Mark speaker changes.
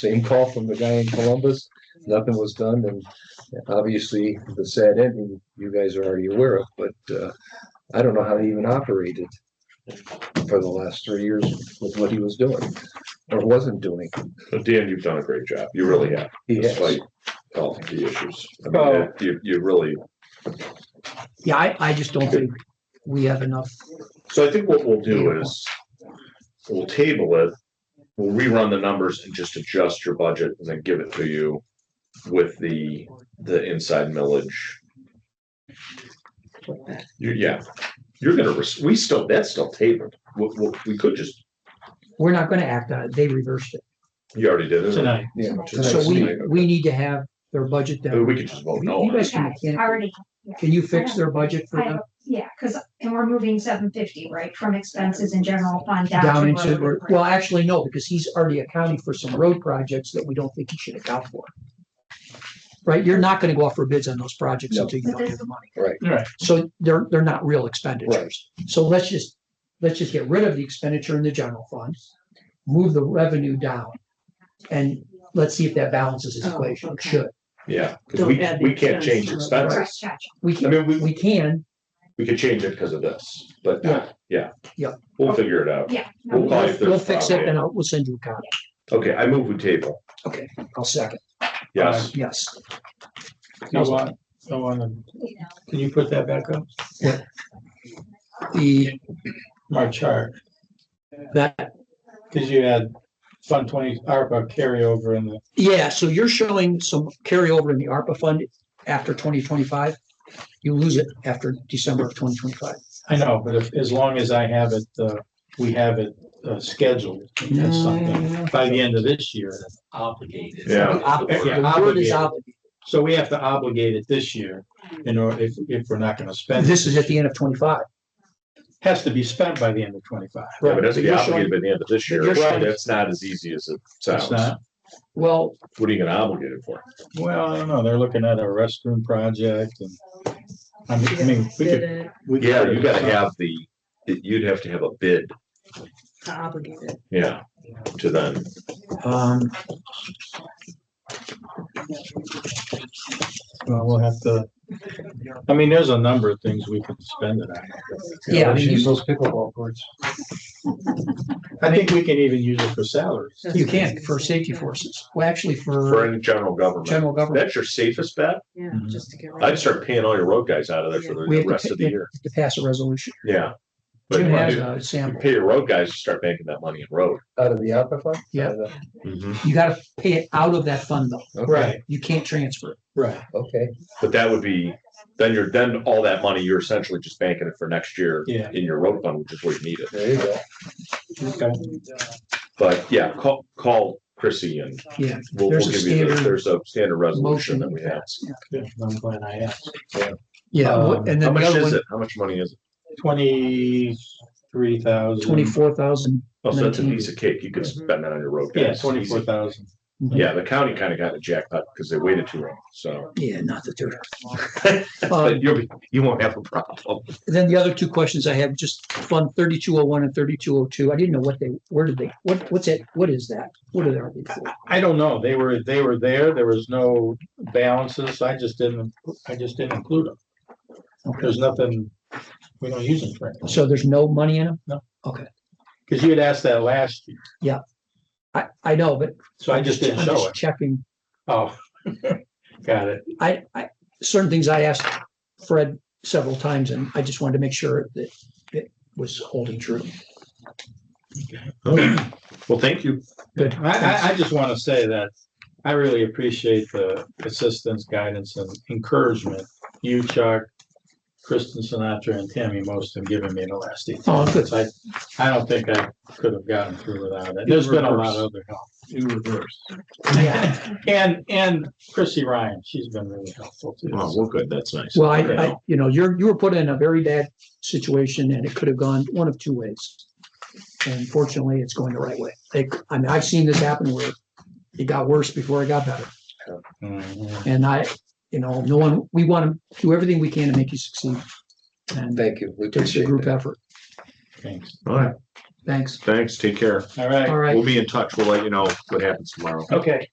Speaker 1: same call from the guy in Columbus. Nothing was done and obviously the sad ending you guys are already aware of, but uh, I don't know how he even operated for the last three years with what he was doing or wasn't doing.
Speaker 2: But Dan, you've done a great job. You really have,
Speaker 1: He has-
Speaker 2: despite all of the issues. I
Speaker 3: Oh.
Speaker 2: mean, you, you really,
Speaker 4: Yeah, I, I just don't think we have enough.
Speaker 2: so I think what we'll do is we'll table it. We'll rerun the numbers and just adjust your budget and then give it to you with the, the inside millage. You- yeah, you're gonna, rec- we still, that's still tabled. We, we, we could just,
Speaker 4: We're not gonna act on it. They reversed it.
Speaker 2: you already did it.
Speaker 3: tonight.
Speaker 1: Yeah.
Speaker 4: So we,
Speaker 2: Tonight.
Speaker 4: we need to have their budget
Speaker 2: Uh,
Speaker 4: down.
Speaker 2: We could just vote no.
Speaker 4: You
Speaker 2: on
Speaker 4: guys
Speaker 2: it.
Speaker 4: can,
Speaker 5: I
Speaker 4: can,
Speaker 5: Already,
Speaker 4: can you fix their budget for
Speaker 5: I
Speaker 4: them
Speaker 5: have, yeah, because, and we're moving seven fifty, right, from expenses in general fund down.
Speaker 4: down
Speaker 5: to
Speaker 4: into,
Speaker 5: road
Speaker 4: or- well, actually, no, because he's already accounting for some road projects that we don't think he should account for. Right? You're not gonna go out for bids on those projects
Speaker 1: No.
Speaker 4: until you don't have the money.
Speaker 3: Right.
Speaker 4: So they're, they're not real expenditures. So let's just, let's just get rid of the expenditure in the general fund, move the revenue down. And let's see if that balances his
Speaker 6: Oh,
Speaker 4: equation. It
Speaker 6: okay.
Speaker 4: should.
Speaker 2: Yeah, because
Speaker 6: Don't
Speaker 2: we,
Speaker 6: add the
Speaker 2: we can't change
Speaker 6: expense to it.
Speaker 5: Right,
Speaker 2: expenses.
Speaker 5: gotcha.
Speaker 4: We
Speaker 2: I
Speaker 4: can,
Speaker 2: mean, we,
Speaker 4: we can,
Speaker 2: we could change it because of this, but
Speaker 4: Yeah.
Speaker 2: yeah.
Speaker 4: Yeah.
Speaker 2: We'll figure it out.
Speaker 5: Yeah. no,
Speaker 2: We'll call
Speaker 4: we'll
Speaker 2: if there's
Speaker 4: we'll fix it
Speaker 2: problem.
Speaker 4: and I'll, we'll send you a copy.
Speaker 2: Okay, I move with table.
Speaker 4: I'll second.
Speaker 2: Yes.
Speaker 4: Yes.
Speaker 3: No one, no one, can you put that back up?
Speaker 4: The,
Speaker 3: My chart,
Speaker 4: that,
Speaker 3: because you had Fund Twenty ARPA carryover in the,
Speaker 4: yeah, so you're showing some carryover in the ARPA fund after twenty twenty-five. You lose it after December of twenty twenty-five.
Speaker 3: I know, but if, as long as I have it, uh, we have it uh, scheduled, that's something, by the end of this year.
Speaker 7: obligated.
Speaker 2: Yeah.
Speaker 3: Yeah,
Speaker 4: The word is
Speaker 3: obligated.
Speaker 4: out.
Speaker 3: So we have to obligate it this year, in order, if, if we're not gonna spend. it.
Speaker 4: This is at the end of twenty-five.
Speaker 3: Has to be spent by the end of twenty-five.
Speaker 2: Yeah, but it has to
Speaker 4: So
Speaker 2: be
Speaker 4: you're
Speaker 2: obligated by the end of this year.
Speaker 4: you're showing-
Speaker 2: That's not as easy as it sounds.
Speaker 3: It's not,
Speaker 4: Well,
Speaker 2: What are you gonna obligate it for?
Speaker 3: well, I don't know, they're looking at a restroom project and, I mean- I mean, we could.
Speaker 6: Did it
Speaker 3: we could
Speaker 2: Yeah,
Speaker 3: put
Speaker 2: you
Speaker 3: it
Speaker 2: gotta
Speaker 3: aside.
Speaker 2: have the, you'd have to have a bid,
Speaker 6: To obligate it.
Speaker 2: yeah, to then.
Speaker 4: um,
Speaker 3: Uh, Well, we'll have to, I mean, there's a number of things we can spend it on.
Speaker 4: Yeah, I mean, you-
Speaker 1: Use those pickleball courts.
Speaker 3: I think we can even use it for salaries.
Speaker 4: you can for safety forces. Well, actually
Speaker 2: For
Speaker 4: for
Speaker 2: any general government,
Speaker 4: general government,
Speaker 2: that's your safest bet.
Speaker 6: Yeah,
Speaker 3: Mm-hmm.
Speaker 6: just to get. rid
Speaker 2: I'd
Speaker 6: of
Speaker 2: start paying all your road guys out of there for the
Speaker 4: We have to
Speaker 2: rest of the
Speaker 4: pay-
Speaker 2: year.
Speaker 4: to pass a resolution.
Speaker 2: Yeah. But
Speaker 4: Jim
Speaker 2: you
Speaker 4: has
Speaker 2: wanna
Speaker 4: a
Speaker 2: do- you
Speaker 4: sample.
Speaker 2: pay your road guys, you start making that money in road.
Speaker 1: Out of the ARPA fund?
Speaker 4: Yeah.
Speaker 2: Mm-hmm.
Speaker 4: You gotta pay it out of that fund though.
Speaker 1: Okay,
Speaker 4: You can't transfer it.
Speaker 3: right.
Speaker 1: okay.
Speaker 2: But that would be, then you're, then all that money, you're essentially just banking it for next year
Speaker 3: Yeah.
Speaker 2: in your road fund, which is where you need it.
Speaker 1: There you go.
Speaker 3: Okay.
Speaker 2: But yeah, call, call Chrissy and
Speaker 4: Yeah.
Speaker 2: we'll, we'll
Speaker 4: There's a
Speaker 2: give you, the-
Speaker 4: standard
Speaker 2: there's a standard resolution
Speaker 4: motion.
Speaker 2: that we have.
Speaker 3: Good. I'm glad I asked.
Speaker 4: Yeah.
Speaker 2: Um, How
Speaker 4: what- And then the
Speaker 2: much
Speaker 4: other
Speaker 2: is
Speaker 4: one,
Speaker 2: it? How much money is it?
Speaker 3: Twenty-three thousand.
Speaker 4: twenty-four thousand.
Speaker 2: Oh, so that's a
Speaker 4: Nineteen.
Speaker 2: piece of cake. You could
Speaker 4: Mm-hmm.
Speaker 2: spend that on your road.
Speaker 3: Yeah,
Speaker 2: guys.
Speaker 3: twenty-four thousand.
Speaker 2: Easy. Yeah, the county kind of got a jackpot because they waited too long, so.
Speaker 4: Yeah, not that they're. Um,
Speaker 2: But you'll be, you won't have a problem.
Speaker 4: Then the other two questions I have, just Fund thirty-two oh one and thirty-two oh two. I didn't know what they, where did they, what, what's it, what is that? What are they? for?
Speaker 3: I don't know. They were, they were there. There was no balances. I just didn't, I just didn't include them. There's nothing, we don't use them for anything.
Speaker 4: So there's no money in them?
Speaker 3: Because you had asked that last year,
Speaker 4: I, I know, but.
Speaker 3: so I just didn't
Speaker 4: I'm
Speaker 3: show
Speaker 4: just
Speaker 3: it.
Speaker 4: Checking.
Speaker 3: Oh. Got it.
Speaker 4: I, I, certain things I asked Fred several times and I just wanted to make sure that it was holding true.
Speaker 2: Well, thank you.
Speaker 4: Good.
Speaker 3: I, I, I just want to say that I really appreciate the assistance, guidance and encouragement you, Chuck, Kristen Sinatra and Tammy Most have given me in the last eight.
Speaker 4: Oh, good.
Speaker 3: months. I, I don't think I could have gotten through without it. There's been a lot of other help. You reverse. And, and Chrissy Ryan, she's been really helpful
Speaker 2: Well,
Speaker 3: too.
Speaker 2: well, good. That's nice.
Speaker 4: Well, I, I, you know, you're, you were put in a very bad situation and it could have gone one of two ways. And fortunately, it's going the right way. It- I mean, I've seen this happen where it got worse before it got better.
Speaker 3: Mhm.
Speaker 4: And I, you know, no one, we want to do everything we can to make you succeed. And it
Speaker 1: Thank you. We
Speaker 4: takes a
Speaker 1: appreciate
Speaker 4: group
Speaker 1: that.
Speaker 4: effort.
Speaker 3: Thanks.
Speaker 2: All right.
Speaker 4: Thanks.
Speaker 2: Thanks, take care.
Speaker 3: All right.
Speaker 4: All right.
Speaker 2: We'll be in touch. We'll let you know what happens tomorrow.
Speaker 3: Okay.